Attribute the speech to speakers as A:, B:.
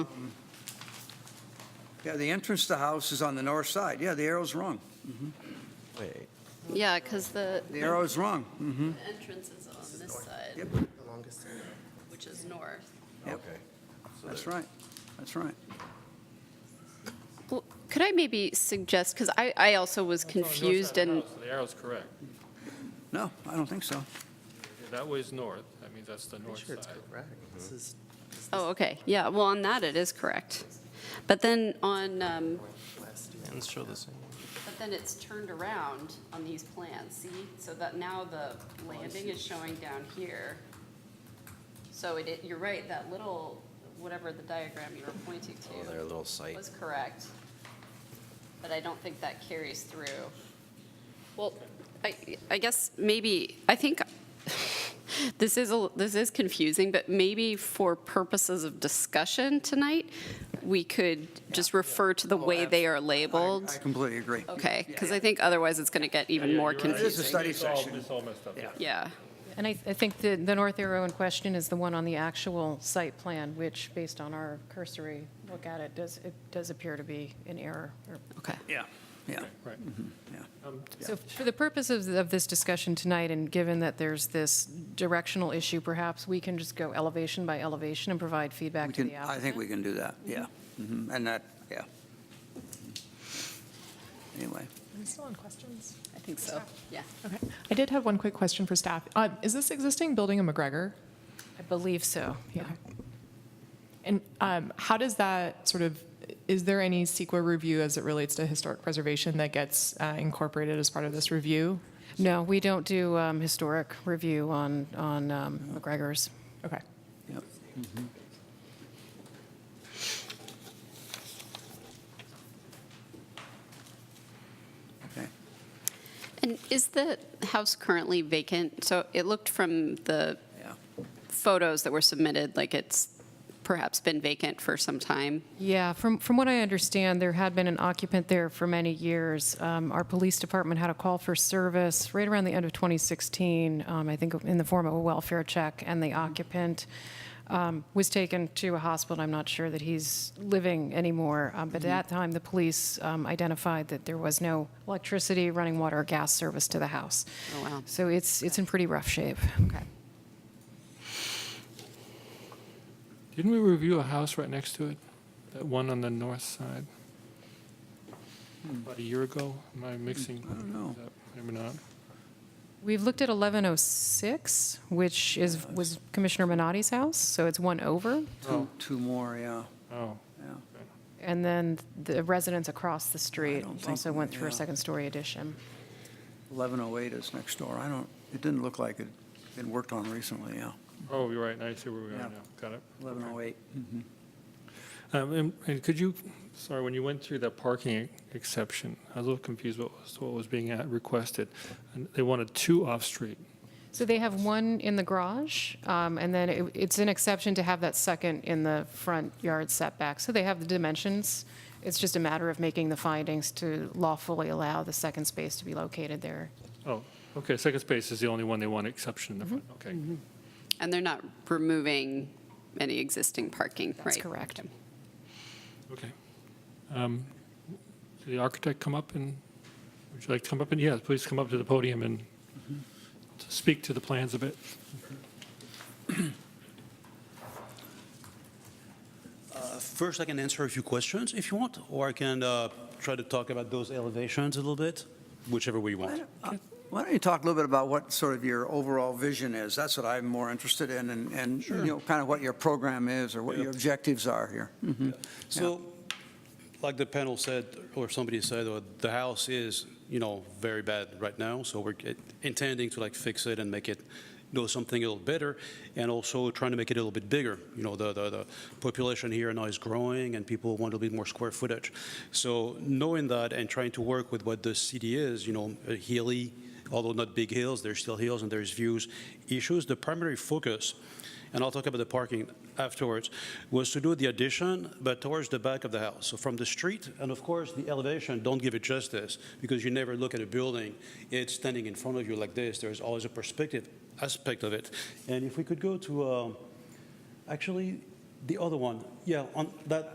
A: Yeah, the entrance to the house is on the north side. Yeah, the arrow's wrong.
B: Wait,
C: Yeah, because the
A: The arrow's wrong.
C: the entrance is on this side,
A: Yep,
C: which is north.
A: Yep.
B: okay. So
A: that's
B: there-
A: right. That's right.
C: Well, Could I maybe suggest, because I, I also was
D: Oh,
C: confused and,
D: So The arrow's correct.
A: No, I don't think so.
D: That way's north, that means that's the north
E: Sure, it's
D: side.
E: correct. This is, this
C: oh, okay, yeah, well, on that it is correct. But then on, um,
E: is last year.
B: Plans show the same.
C: but then it's turned around on these plans, see? So that now the landing is showing down here. So it, it- you're right, that little, whatever the diagram you were pointing
B: Oh, their
C: to
B: little site.
C: was correct. But I don't think that carries through. Well, I, I guess maybe, I think, this is, a this is confusing, but maybe for purposes of discussion tonight, we could just refer to the
D: Oh,
C: way they are
A: I
C: labeled.
A: completely agree.
C: Okay, because I think otherwise it's going to get even
D: Yeah,
C: more
D: you're right.
A: It is a
C: confusing.
A: study
D: It's all-
A: session.
D: It's all messed up, yeah.
C: Yeah,
F: And I, I think the, the north arrow in question is the one on the actual site plan, which, based on our cursory look at it, does, it does appear to be an error. or-
C: okay.
A: Yeah, yeah,
D: Right. Um,
A: yeah.
F: So for the purposes of this discussion tonight, and given that there's this directional issue, perhaps we can just go elevation by elevation and provide
A: We
F: feedback to
A: can,
F: the Mm-hmm.
A: I think
F: applicant.
A: we can do that, yeah. Mhm, And that, yeah. Anyway,
G: Am I still on questions?
C: I think so, yeah.
G: Okay. I did have one quick question for staff. Uh, Is this existing building a McGregor?
F: I believe so, yeah.
G: Okay. And um, how does that sort of, is there any CEQA review as it relates to historic preservation that gets uh, incorporated as part of this review?
F: No, we don't do um, historic review on, on um, McGregor's.
G: Okay.
A: yep. Mm-hmm. Okay.
C: And is the house currently vacant? So it looked from the
A: Yeah.
C: photos that were submitted, like it's perhaps been vacant for some time.
F: Yeah, from, from what I understand, there had been an occupant there for many years. Um, Our police department had a call for service right around the end of 2016, um, I think in the form of a welfare check, and
C: Mm-hmm.
F: the occupant um, was taken to a hospital. I'm not sure that he's living anymore, um,
C: Mm-hmm.
F: but at that time, the police um, identified that there was no electricity, running water, or gas service to the house.
C: Oh, wow.
F: So it's, it's in pretty rough shape.
C: Okay.
D: Didn't we review a house right next to it? That one on the north side? About a year ago? Am I mixing? I
A: don't know.
D: Maybe not.
F: We've looked at 1106, which is, was Commissioner Minotti's house, so it's one over.
A: Two, two more, yeah,
D: Oh,
A: yeah.
F: And then the residents across the street
A: don't think-
F: also went through a
A: yeah.
F: second-story addition.
A: 1108 is next door. I don't, it didn't look like it been worked on recently, yeah. oh
D: oh, you're right, now I see where we are
A: Yeah.
D: now, got it.
A: 1108.
D: Um, And and could you, sorry, when you went through that parking e- exception, I was a little confused what was, what was being uh, requested. And They wanted two off-street.
F: So they have one in the garage, um, and then it- it's an exception to have that second in the front yard setback. So they have the dimensions. It's just a matter of making the findings to lawfully allow the second space to be located there.
D: Oh, okay, second space is the only one they want exception in the front, okay.
C: And they're not removing any existing parking, right?
F: That's correct.
C: Okay.
D: Okay. Um, Did the architect come up and, would you like to come up and, yes, please come up to the podium and to speak to the plans a bit.
H: uh, First, I can answer a few questions if you want, or I can uh, try to talk about those elevations a little bit, whichever way you want.
A: Uh, Why don't you talk a little bit about what sort of your overall vision is? That's what I'm more interested in, and, and, you know, kind of what your program is, or what your objectives are here.
H: So, like the panel said, or somebody said, uh, the house is, you know, very bad right now, so we're get- intending to like fix it and make it, you know, something a little better, and also trying to make it a little bit bigger. You know, the, the, the population here now is growing, and people want a little bit more square footage. So knowing that and trying to work with what the city is, you know, uh, hilly, although not big hills, there's still hills and there's views issues. The primary focus and I'll talk about the parking afterwards, was to do the addition, but towards the back of the house. So from the street, and of course, the elevation, don't give it justice, because you never look at a building, it's standing in front of you like this, there's always a perspective aspect of it. And if we could go to, um, uh, actually, The other one, yeah, on that,